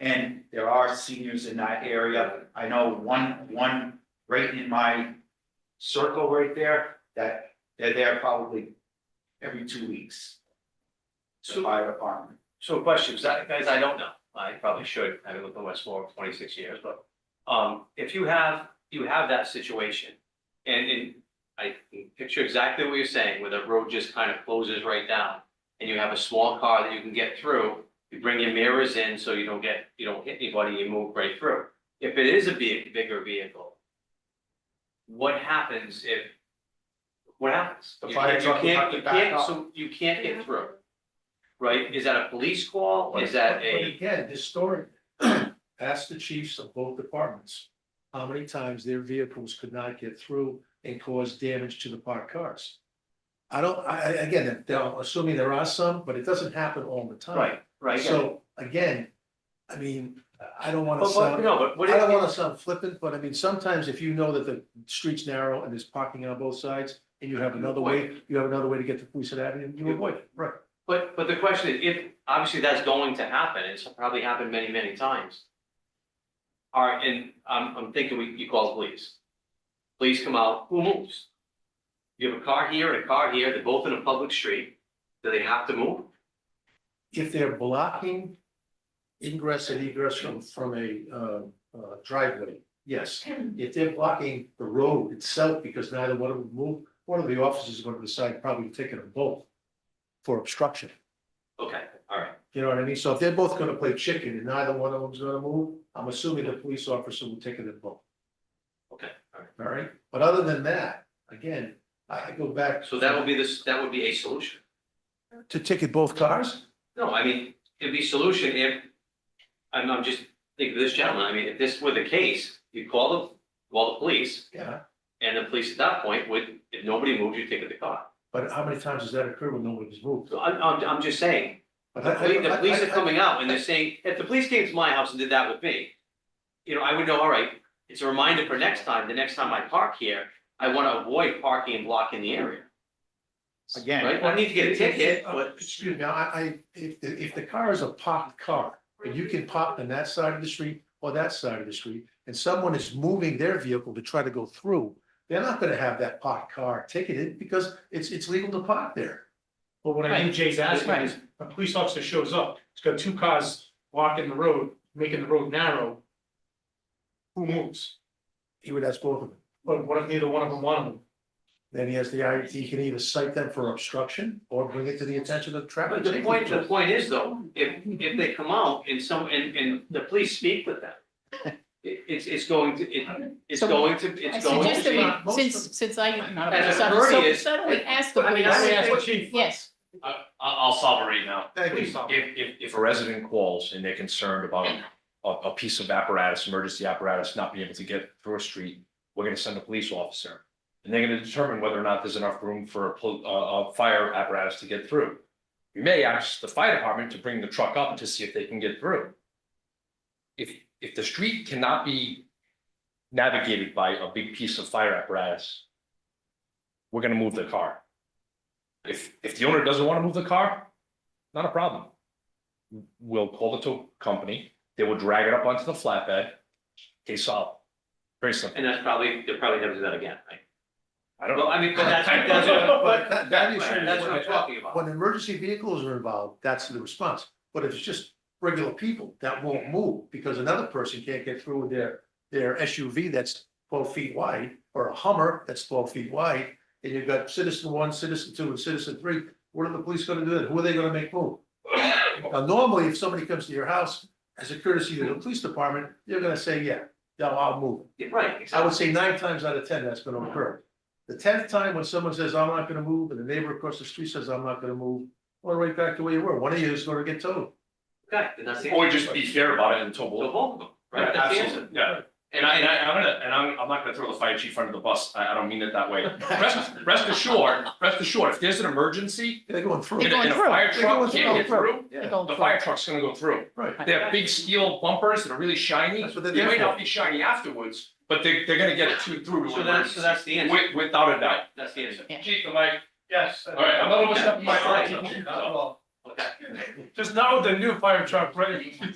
And there are seniors in that area. I know one, one right in my circle right there, that they're there probably every two weeks. The So- fire department. So questions, I, guys, I don't know, I probably should, having lived in Westmore for twenty-six years, but, um, if you have, you have that situation. And, and I can picture exactly what you're saying, where the road just kind of closes right down, and you have a small car that you can get through. You bring your mirrors in so you don't get, you don't hit anybody, you move right through. If it is a big, bigger vehicle. What happens if? What happens? The You fire can't- you truck would can't- have to you back can't- up. So you can't get through. Right, is that a police call, is that But- But a, again, this story, ask the chiefs of both departments, how many times their vehicles could not get through and cause damage to the parked cars. I don't, I, I- again, they're assuming there are some, but it doesn't happen all the time. right, right? So, again, I mean, I don't wanna But what, sound, no, but I what, don't if- wanna sound flippant, but I mean, sometimes if you know that the street's narrow and there's parking on both sides, and you have another way, you have another way to get to Queeset Avenue, you avoid it, right? but, but the question is, if, obviously that's going to happen, it's probably happened many, many times. All right, and I'm, I'm thinking we, you call the police. Police come out, who moves? You have a car here and a car here, they're both in a public street, do they have to move? if they're blocking ingress and egress from, from a, uh, uh, driveway, yes. If they're blocking the road itself, because neither one of them move, one of the officers is going to decide probably to take them both for obstruction, Okay, all right, you know what I mean? So if they're both gonna play chicken and neither one of them's gonna move, I'm assuming the police officer will take it in both, okay, all right. all right? But other than that, again, I I go back. So that would be this, that would be a solution. To ticket both cars? No, I mean, it'd be solution if, I'm, I'm just thinking of this gentleman, I mean, if this were the case, you'd call the, call the police, Yeah, and the police at that point would, if nobody moved, you'd take the car. but how many times has that occurred when nobody's moved? So I'm, I'm, I'm just saying, But the I- I- police, the police I- are I- coming out and they're saying, if the police came to my house and did that with me, you know, I would know, all right, it's a reminder for next time, the next time I park here, I wanna avoid parking and blocking the area, Again, right? I need to get a ticket, Uh, but, Excuse me, I, I, if, the- if the car is a parked car, and you can park on that side of the street or that side of the street, and someone is moving their vehicle to try to go through, they're not gonna have that parked car ticketed because it's, it's legal to park there. But what I think Jay's asking is, a police officer shows up, it's got two cars blocking the road, making the road narrow. Who moves? He would ask both of them. But what if neither one of them want to move? Then he has the, I- he can either cite them for obstruction or bring it to the attention of the traffic. but the safety point, the officials. point is though, if, if they come out and some, and, and the police speak with them, it, it's, it's going to, it, it's So- going to, I it's going to suggest be. that we, since, since I'm not a As police a officer, courteous- so suddenly ask the I mean, I police, would think- yes. I, I'll solve it right now. Thank you. If, if, if a resident calls and they're concerned about a, a piece of apparatus, emergency apparatus not being able to get through a street, we're gonna send a police officer. And they're gonna determine whether or not there's enough room for a, pol- uh, a, a fire apparatus to get through. We may ask the fire department to bring the truck up to see if they can get through. If, if the street cannot be navigated by a big piece of fire apparatus, we're gonna move the car. If, if the owner doesn't want to move the car, not a problem. We'll call the tow company, they will drag it up onto the flatbed, case solved. Very simple. And that's probably, they'll probably never do that again, right? I don't Well, know. I mean, but that's, that's what, But but, that, that is. that's what I'm talking about. When emergency vehicles are involved, that's the response, but if it's just regular people, that won't move, because another person can't get through with their, their SUV that's twelve feet wide, or a Hummer that's twelve feet wide, and you've got citizen one, citizen two, and citizen three, what are the police gonna do then, who are they gonna make move? Now, normally, if somebody comes to your house, as a courtesy to the police department, they're gonna say, yeah, no, I'll move. Yeah, Right, I would exactly. say nine times out of ten, that's gonna occur. The tenth time when someone says, I'm not gonna move, and the neighbor across the street says, I'm not gonna move, well, right back to where you were, one of you is gonna get towed. Okay, then that's the Or answer. just be fair about it and tow So both. both of them, right? Yeah, That's the absolutely. answer. Yeah, and I, and I, I'm gonna, and I'm, I'm not gonna throw the fire chief under the bus, I, I don't mean it that way. Rest, rest assured, rest assured, if there's an emergency, They're going through. They're and going a and a through. fire They're truck going can't get through. through, They're going the through. fire truck's gonna go through. Right, They have big steel bumpers that are really shiny. That's what they're They there may for. not be shiny afterwards, but they, they're gonna get it to- through. to So that's, so that's the emergency, answer. wi- Without a doubt. Right, That's the answer. Yeah. Chief, am I, Yes. all right, I'm not overstepping my Yeah. authority. Okay. Just not with the new fire truck, right?